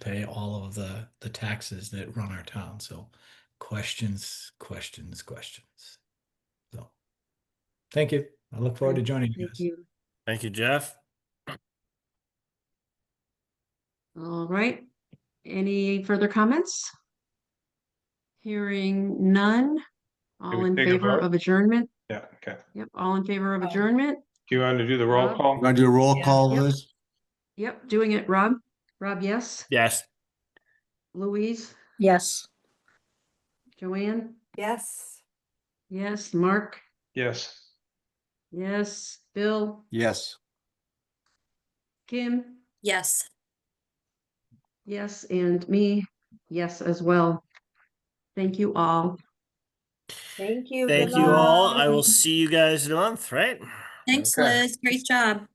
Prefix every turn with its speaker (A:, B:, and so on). A: pay all of the, the taxes that run our town. So questions, questions, questions. So, thank you. I look forward to joining you
B: Thank
A: guys.
B: you.
C: Thank you, Jeff.
B: All right. Any further comments? Hearing none. All
D: we
B: in
D: take a
B: favor
D: vote?
B: of adjournment?
D: Yeah, okay.
B: Yep, all in favor of adjournment?
D: Do you want to do the roll
B: Rob?
D: call?
E: Gonna do a roll
F: Yeah.
E: call,
B: Yep.
E: Liz?
B: Yep, doing it, Rob. Rob, yes.
C: Yes.
B: Louise,
F: Yes.
B: Joanne,
G: Yes.
B: yes, Mark,
D: Yes.
B: yes, Bill,
E: Yes.
B: Kim,
G: Yes.
B: yes, and me, yes as well. Thank you all.
F: Thank you.
C: Thank
F: Good
C: you all.
F: night.
C: I will see you guys in a month, right?
G: Thanks,
E: Okay.
G: Liz. Great job.